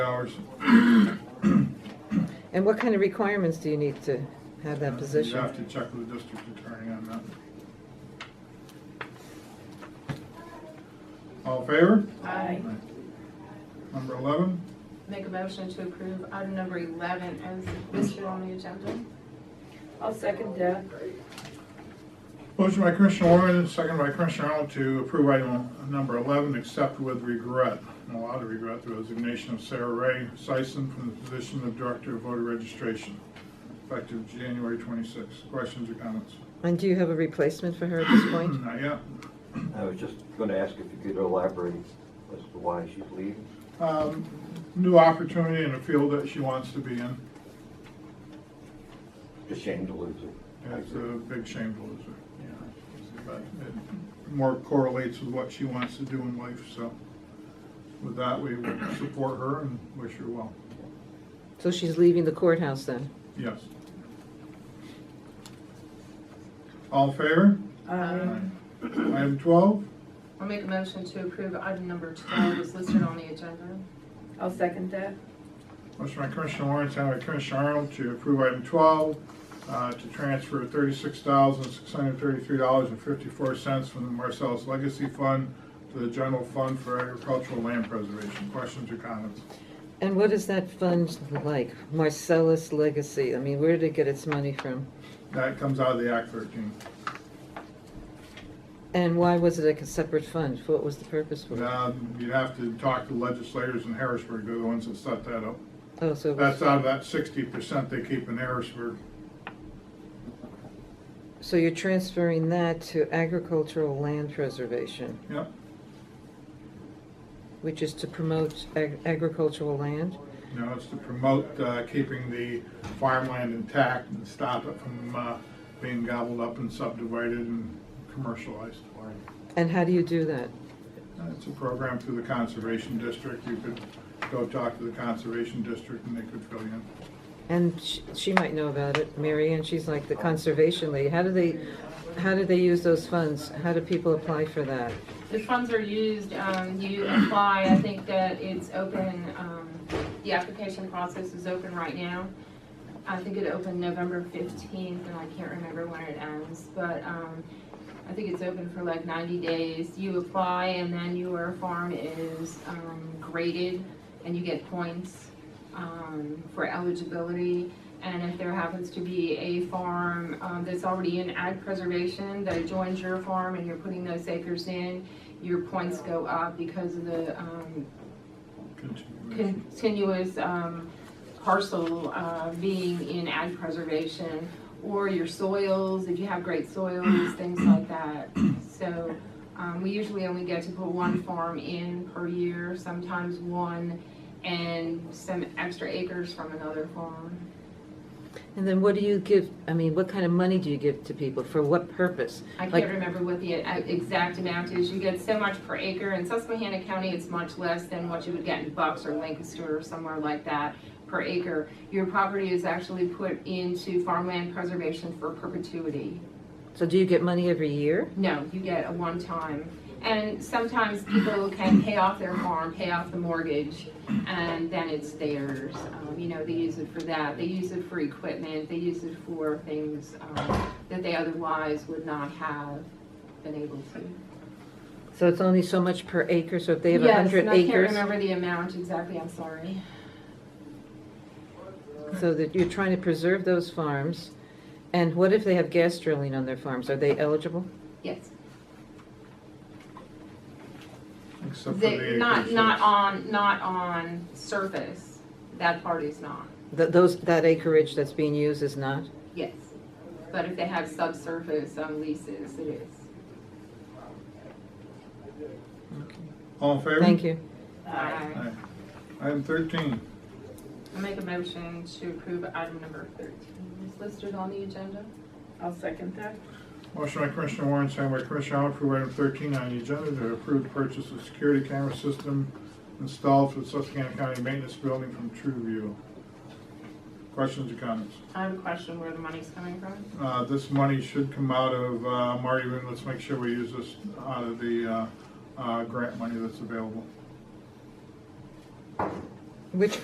hours. And what kind of requirements do you need to have that You position? have to check with the district attorney on that. All in favor? Aye. Number 11, Make a motion to approve item number 11 as listed on the agenda. I'll second that. motion by Commissioner Warren, second by Commissioner Arnold to approve item number 11, except with regret, and a lot of regret, the resignation of Sarah Ray Sison from the position of Director of Voter Registration, effective January 26. Questions or comments? And do you have a replacement for her at this point? Not yet. I was just gonna ask if you could elaborate as to why she's leaving. Um, New opportunity in a field that she wants to be in. It's a shame to lose her. It's a big shame to lose her. But it more correlates with what she wants to do in life, so with that, we would support her and wish her well. So she's leaving the courthouse then? Yes. All in favor? Aye. Item twelve, I'll Um, make a motion to approve item number 12 as listed on the agenda. I'll second that. motion by Commissioner Warren, second by Commissioner Arnold to approve item twelve, uh, to transfer thirty-six thousand, six hundred thirty-three dollars and fifty-four cents from the Marcellus Legacy Fund to the General Fund for Agricultural Land Preservation. Questions or comments? And what is that fund like? Marcellus Legacy? I mean, where did it get its money from? That comes out of the Act thirteen. And why was it like a separate fund? What was the purpose for it? Now, Um, you'd have to talk to legislators in Harrisburg, they're the ones that set that up. Oh, so it was- That's out of that sixty percent they keep in Harrisburg. So you're transferring that to agricultural land preservation, Yep, which is to promote ag- agricultural land? you know, it's to promote, uh, keeping the farmland intact and stop it from, uh, being gobbled up and subdivided and commercialized. And how do you do that? Uh, It's a program through the Conservation District, you could go talk to the Conservation District and they could fill you in. And sh- she might know about it, Mary Ann, she's like the conservation lady. How do they, how do they use those funds? How do people apply for that? The funds are used, um, you apply, I think that it's open, um, the application process is open right now. I think it opened November fifteenth, and I can't remember when it ends, but, um, I think it's open for like ninety days. You apply, and then your farm is, um, graded, and you get points, um, for eligibility. And if there happens to be a farm um, that's already in ag preservation that joins your farm and you're putting those acres in, your points go up because of the um, Continuation. continuous um, parcel uh, being in ag preservation. Or your soils, if you have great soils, things like that. So um, we usually only get to put one farm in per year, sometimes one, and some extra acres from another farm. And then what do you give, I mean, what kind of money do you give to people? For what purpose? I Like- can't remember what the uh, exact amount is. You get so much per acre. In Susquehanna County, it's much less than what you would get in Bucks or Lancaster or somewhere like that per acre. Your property is actually put into farmland preservation for perpetuity. So do you get money every year? No, you get a one-time. And sometimes people can pay off their farm, pay off the mortgage, and then it's theirs. Um, You know, they use it for that. They use it for equipment. They use it for things um, that they otherwise would not have been able to. So it's only so much per acre, so if they have Yes, 100 and I can't acres, remember the amount exactly, I'm sorry. so that you're trying to preserve those farms. And what if they have gas drilling on their farms? Are they eligible? Yes, Except for They- the not, acres not that's- on, not on surface, that part is not, Th- Those, that acreage that's being used is not? yes. But if they have subsurface on leases, it is. All in favor? Thank you. Aye. Aye. Item thirteen, I make a motion to approve item number 13 is listed on the agenda. I'll second that. Motion by Commissioner Warren, second by Commissioner Arnold, approve item thirteen on the agenda to approve the purchase of security camera system installed for the Susquehanna County Maintenance Building from TrueView. Questions or comments? I have a question where the money's coming from. Uh, this money should come out of, uh, Marty, let's make sure we use this out of the, uh, uh, grant money that's available. Which